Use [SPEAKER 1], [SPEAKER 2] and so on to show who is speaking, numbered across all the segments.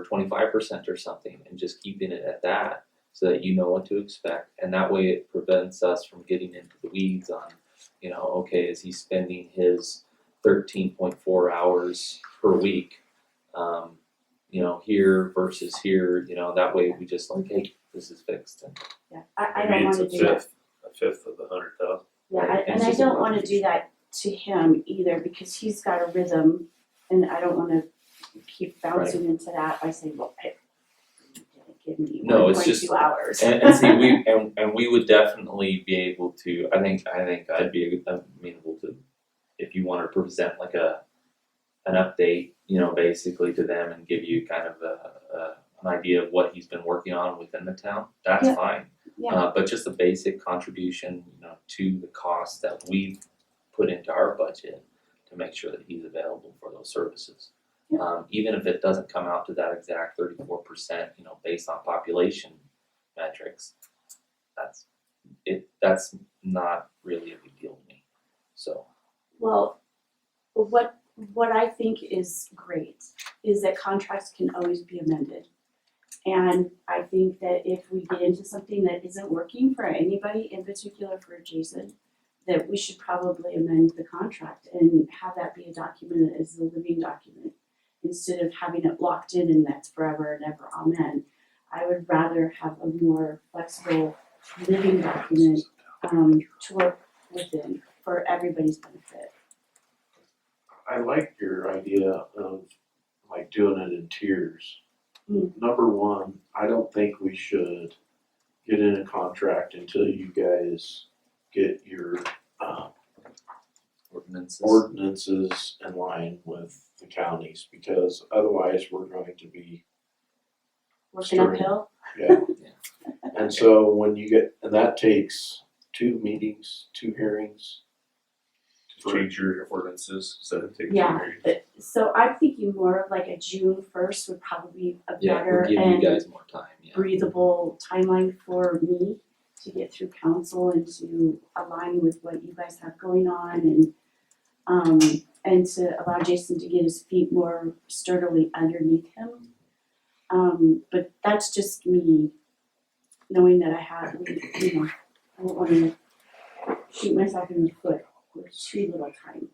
[SPEAKER 1] for twenty-five percent or something and just keeping it at that so that you know what to expect. And that way it prevents us from getting into the weeds on, you know, okay, is he spending his thirteen point four hours per week? Um, you know, here versus here, you know, that way we just like, hey, this is fixed and
[SPEAKER 2] Yeah, I, I
[SPEAKER 3] It
[SPEAKER 2] don't
[SPEAKER 3] means
[SPEAKER 2] wanna
[SPEAKER 3] a
[SPEAKER 2] do that.
[SPEAKER 3] fifth, a fifth of the hundred thousand.
[SPEAKER 2] Yeah, I-
[SPEAKER 1] Right,
[SPEAKER 2] and
[SPEAKER 1] it's
[SPEAKER 2] I
[SPEAKER 1] just a
[SPEAKER 2] don't wanna do that to him either, because he's got a rhythm, and I don't wanna keep bouncing into that by saying, well, I give me
[SPEAKER 1] No,
[SPEAKER 2] one
[SPEAKER 1] it's
[SPEAKER 2] point
[SPEAKER 1] just-
[SPEAKER 2] two hours.
[SPEAKER 1] And, and see, we and, and we would definitely be able to. I think I think I'd be amenable to if you want to present like a an update, you know, basically to them and give you kind of a, a an idea of what he's been working on within the town. That's
[SPEAKER 2] Yeah.
[SPEAKER 1] fine.
[SPEAKER 2] Yeah.
[SPEAKER 1] Uh, but just a basic contribution, you know, to the cost that we've put into our budget to make sure that he's available for those services.
[SPEAKER 2] Yeah.
[SPEAKER 1] Um, even if it doesn't come out to that exact thirty-four percent, you know, based on population metrics, that's it. That's not really a big deal to me. So
[SPEAKER 2] Well, what, what I think is great is that contracts can always be amended. And I think that if we get into something that isn't working for anybody, in particular for Jason, that we should probably amend the contract and have that be a document that is a living document. Instead of having it locked in and that's forever and ever, amen. I would rather have a more flexible living document um to work within for everybody's benefit.
[SPEAKER 3] I like your idea of like doing it in tiers.
[SPEAKER 2] Mm.
[SPEAKER 3] Number one, I don't think we should get in a contract until you guys get your uh
[SPEAKER 1] ordinances.
[SPEAKER 3] ordinances in line with the counties because otherwise we're going to be
[SPEAKER 2] Working
[SPEAKER 3] Sure.
[SPEAKER 2] uphill,
[SPEAKER 3] Yeah. And so when you get, and that takes two meetings, two hearings.
[SPEAKER 4] to change your ordinances, so that takes.
[SPEAKER 2] Yeah. But- so I'm thinking more of like a June first would probably be a
[SPEAKER 1] Yeah,
[SPEAKER 2] better
[SPEAKER 1] we'll give you
[SPEAKER 2] and
[SPEAKER 1] guys more time. Yeah.
[SPEAKER 2] breathable timeline for me to get through council and to align with what you guys have going on and um and to allow Jason to get his feet more sturdily underneath him. Um but that's just me knowing that I have, you know, I don't wanna shoot myself in the foot with too little time.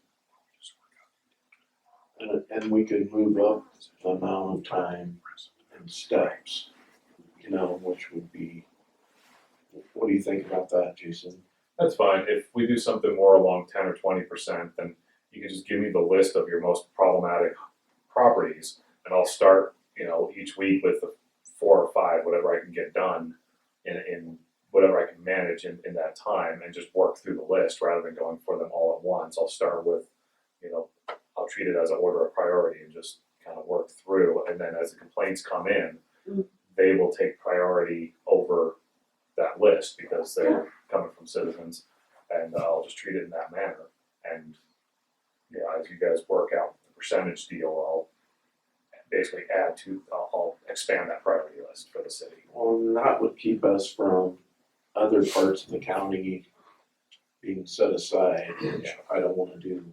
[SPEAKER 3] And, and we could move up the amount of time and steps, you know, which would be, what do you think about that, Jason?
[SPEAKER 4] That's fine, if we do something more along ten or twenty percent, then you can just give me the list of your most problematic properties, and I'll start, you know, each week with the four or five, whatever I can get done in, in whatever I can manage in, in that time, and just work through the list rather than going for them all at once, I'll start with, you know, I'll treat it as an order of priority and just kind of work through, and then as the complaints come in,
[SPEAKER 2] Mm.
[SPEAKER 4] they will take priority over that list because they're coming from citizens, and uh, I'll just treat it in that manner. And yeah, as you guys work out the percentage deal, I'll basically add to, I'll, I'll expand that priority list for the city.
[SPEAKER 3] Well, and that would keep us from other parts of the county being set aside, which I don't wanna do.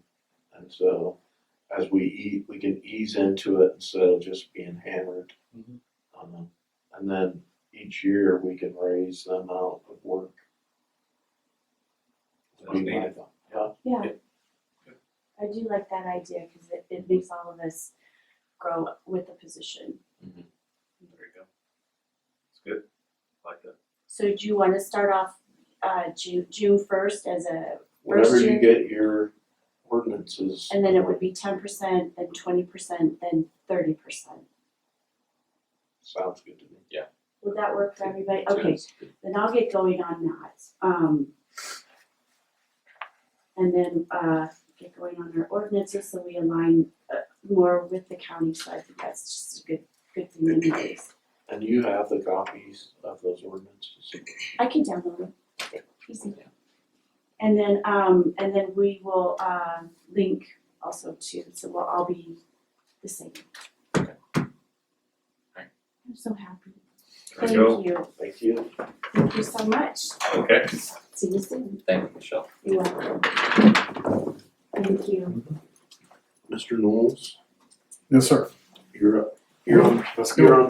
[SPEAKER 3] And so, as we eat, we can ease into it instead of just being hammered.
[SPEAKER 4] Mhm.
[SPEAKER 3] Um, and then each year, we can raise the amount of work. we might- Yeah,
[SPEAKER 2] Yeah.
[SPEAKER 4] Yeah.
[SPEAKER 2] I do like that idea because it, it makes all of us grow with the position.
[SPEAKER 4] Mm-hmm. There you go. It's good, like that.
[SPEAKER 2] So do you want to start off uh, June June first as a
[SPEAKER 3] whenever
[SPEAKER 2] First
[SPEAKER 3] you
[SPEAKER 2] year.
[SPEAKER 3] get your ordinances,
[SPEAKER 2] and then it would be ten percent, then twenty percent, then thirty percent.
[SPEAKER 3] sounds good to me.
[SPEAKER 2] Would that work for everybody? Okay,
[SPEAKER 1] Sounds good.
[SPEAKER 2] then I'll get going on that. Um, and then uh, get going on our ordinances so we align uh, more with the county. So I think that's just a good good thing to notice.
[SPEAKER 3] And you have the copies of those ordinances?
[SPEAKER 2] I can download them. Easy. And then, um, and then we will, uh, link also to, so we'll all be the same.
[SPEAKER 1] Alright.
[SPEAKER 2] I'm so happy.
[SPEAKER 4] There
[SPEAKER 2] Thank
[SPEAKER 4] you go.
[SPEAKER 2] you,
[SPEAKER 3] Thank you.
[SPEAKER 2] thank you so much.
[SPEAKER 4] Okay.
[SPEAKER 2] See you soon.
[SPEAKER 1] Thank you, Michelle.
[SPEAKER 2] You're welcome. Thank you.
[SPEAKER 3] Mr. Knowles,
[SPEAKER 5] Yes, sir.
[SPEAKER 3] you're up. you're on,
[SPEAKER 4] Let's go.
[SPEAKER 3] you're on